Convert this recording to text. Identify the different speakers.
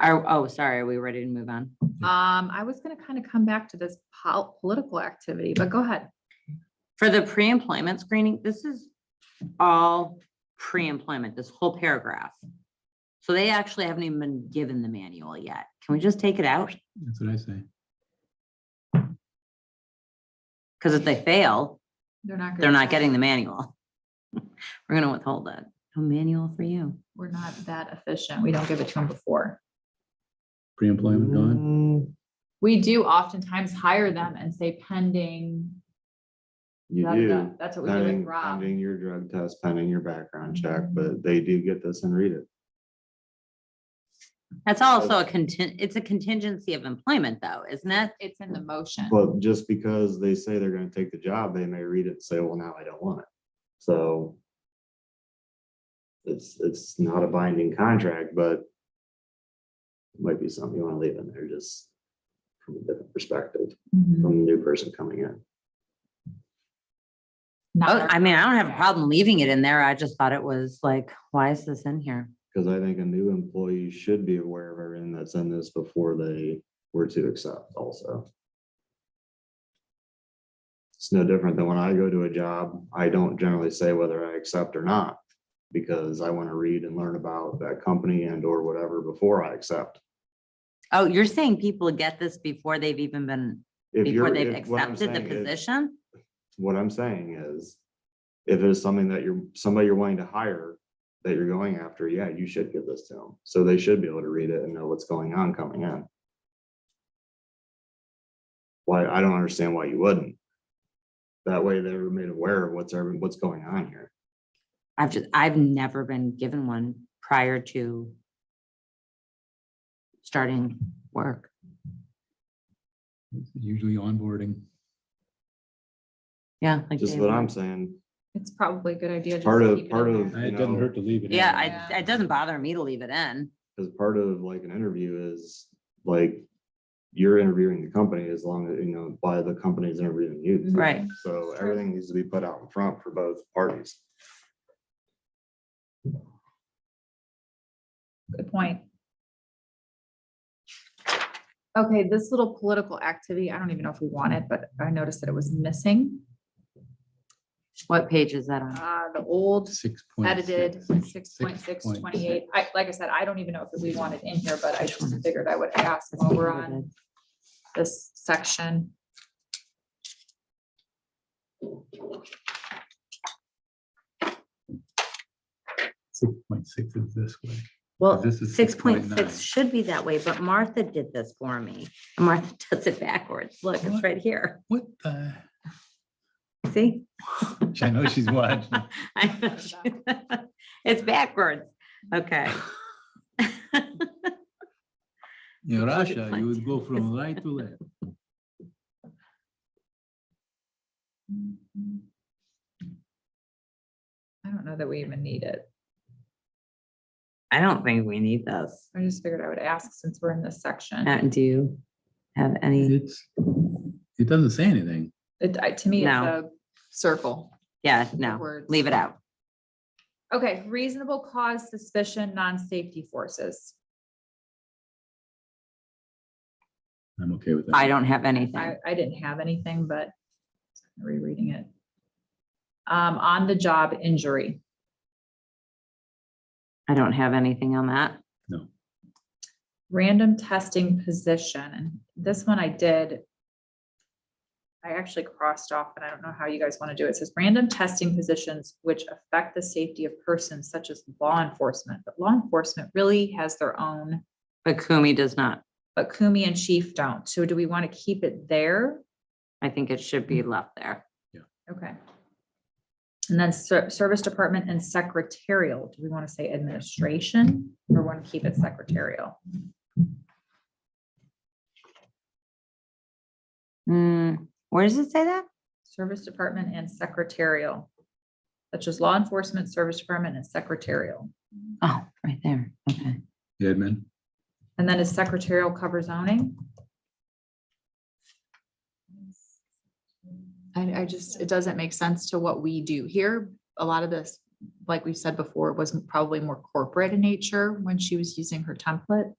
Speaker 1: Are, oh, sorry, are we ready to move on?
Speaker 2: Um, I was gonna kind of come back to this pol- political activity, but go ahead.
Speaker 1: For the pre-employment screening, this is all pre-employment, this whole paragraph. So they actually haven't even been given the manual yet. Can we just take it out?
Speaker 3: That's what I say.
Speaker 1: Because if they fail,
Speaker 2: They're not. gonna
Speaker 1: they're not
Speaker 2: tell
Speaker 1: getting
Speaker 2: us.
Speaker 1: the manual. We're gonna withhold that. No manual for you.
Speaker 2: We're not that efficient. We don't give it to them before.
Speaker 3: Pre-employment gone.
Speaker 4: Mm,
Speaker 2: We do oftentimes hire them and say pending.
Speaker 4: You
Speaker 2: da, da, da.
Speaker 4: do,
Speaker 2: That's what we do with
Speaker 4: pending,
Speaker 2: Rob.
Speaker 4: pending your drug test, pending your background check, but they do get this and read it.
Speaker 1: That's also a contin, it's a contingency of employment though, isn't it?
Speaker 2: It's in the motion.
Speaker 4: But just because they say they're gonna take the job, they may read it and say, well, now I don't want it. So it's, it's not a binding contract, but it might be something you wanna leave in there, just from a different perspective,
Speaker 2: Mhm.
Speaker 4: from the new person coming in.
Speaker 2: Not
Speaker 1: Oh,
Speaker 2: our
Speaker 1: I mean, I don't have a
Speaker 2: contract.
Speaker 1: problem leaving it in there. I just thought it was like, why is this in here?
Speaker 4: Cause I think a new employee should be aware of everything that's in this before they were to accept also. It's no different than when I go to a job, I don't generally say whether I accept or not. Because I wanna read and learn about that company and or whatever before I accept.
Speaker 1: Oh, you're saying people get this before they've even been,
Speaker 4: If
Speaker 1: before
Speaker 4: you're-
Speaker 1: they've
Speaker 4: if- what I'm
Speaker 1: accepted the
Speaker 4: saying is-
Speaker 1: position?
Speaker 4: What I'm saying is, if it's something that you're, somebody you're wanting to hire, that you're going after, yeah, you should give this to them. So they should be able to read it and know what's going on coming in. Why, I don't understand why you wouldn't. That way they're made aware of what's, ever- what's going on here.
Speaker 1: I've just, I've never been given one prior to starting work.
Speaker 3: It's Usually onboarding.
Speaker 1: Yeah. like
Speaker 4: Just
Speaker 1: day
Speaker 4: what
Speaker 1: one.
Speaker 4: I'm saying,
Speaker 2: It's probably a good idea. just
Speaker 4: Part
Speaker 2: to
Speaker 4: of-
Speaker 2: keep it
Speaker 4: part
Speaker 2: in
Speaker 4: of-
Speaker 2: there.
Speaker 3: It doesn't hurt to leave it. in.
Speaker 1: Yeah,
Speaker 2: Yeah.
Speaker 1: I, it doesn't bother me to leave it in.
Speaker 4: because part of like an interview is like, you're interviewing the company as long as, you know, by the company's interviewing
Speaker 2: Mm-hmm.
Speaker 4: you.
Speaker 1: Right.
Speaker 4: So everything needs to be put out in front for both parties.
Speaker 2: Good point. Okay, this little political activity, I don't even know if we want it, but I noticed that it was missing.
Speaker 1: What page is that on?
Speaker 2: Uh, the old
Speaker 3: Six point six.
Speaker 2: edited six point six twenty-eight. I, like I said, I don't even know if we want it in here, but I just figured I would ask while we're on this section.
Speaker 3: Six point six is this way.
Speaker 1: Well,
Speaker 3: This is
Speaker 1: six point six
Speaker 3: 6.9.
Speaker 1: should be that way, but Martha did this for me. And Martha does it backwards. Look, it's
Speaker 3: What?
Speaker 1: right here.
Speaker 3: What the?
Speaker 1: See?
Speaker 3: I know she's watching.
Speaker 1: I know. It's backwards. Okay.
Speaker 3: In Russia, you would go
Speaker 1: It's-
Speaker 3: from right to left.
Speaker 2: I don't know that we even need it.
Speaker 1: I don't think we need this.
Speaker 2: I just figured I would ask since we're in this section.
Speaker 1: Matt, do you have any?
Speaker 3: It's, it doesn't say anything.
Speaker 2: It, I- to me, it's
Speaker 1: No.
Speaker 2: a circle.
Speaker 1: Yeah,
Speaker 2: of
Speaker 1: no,
Speaker 2: words.
Speaker 1: leave it out.
Speaker 2: Okay, reasonable cause suspicion, non-safety forces.
Speaker 3: I'm okay with that.
Speaker 1: I don't have
Speaker 2: I,
Speaker 1: anything.
Speaker 2: I didn't have anything, but rereading it. Um, on the job injury,
Speaker 1: I don't have anything on that.
Speaker 2: random testing position, and this one I did. I actually crossed off, and I don't know how you guys want to do it. It says random testing positions which affect the safety of persons such as law enforcement, but law enforcement really has their own,
Speaker 1: But Kumi does not.
Speaker 2: but Kumi and Chief don't. So do we want to keep it there?
Speaker 1: I think it should be left there.
Speaker 2: Okay. And then ser- service department and secretarial, do we want to say administration or want to keep it secretarial?
Speaker 1: Hmm, where does it say that?
Speaker 2: Service department and secretarial. Such as law enforcement, service department and secretarial.
Speaker 1: Oh, right there. Okay.
Speaker 3: Edmund,
Speaker 2: And then is secretarial cover zoning? I, I just, it doesn't make sense to what we do here. A lot of this, like we said before, was probably more corporate in nature when she was using her template.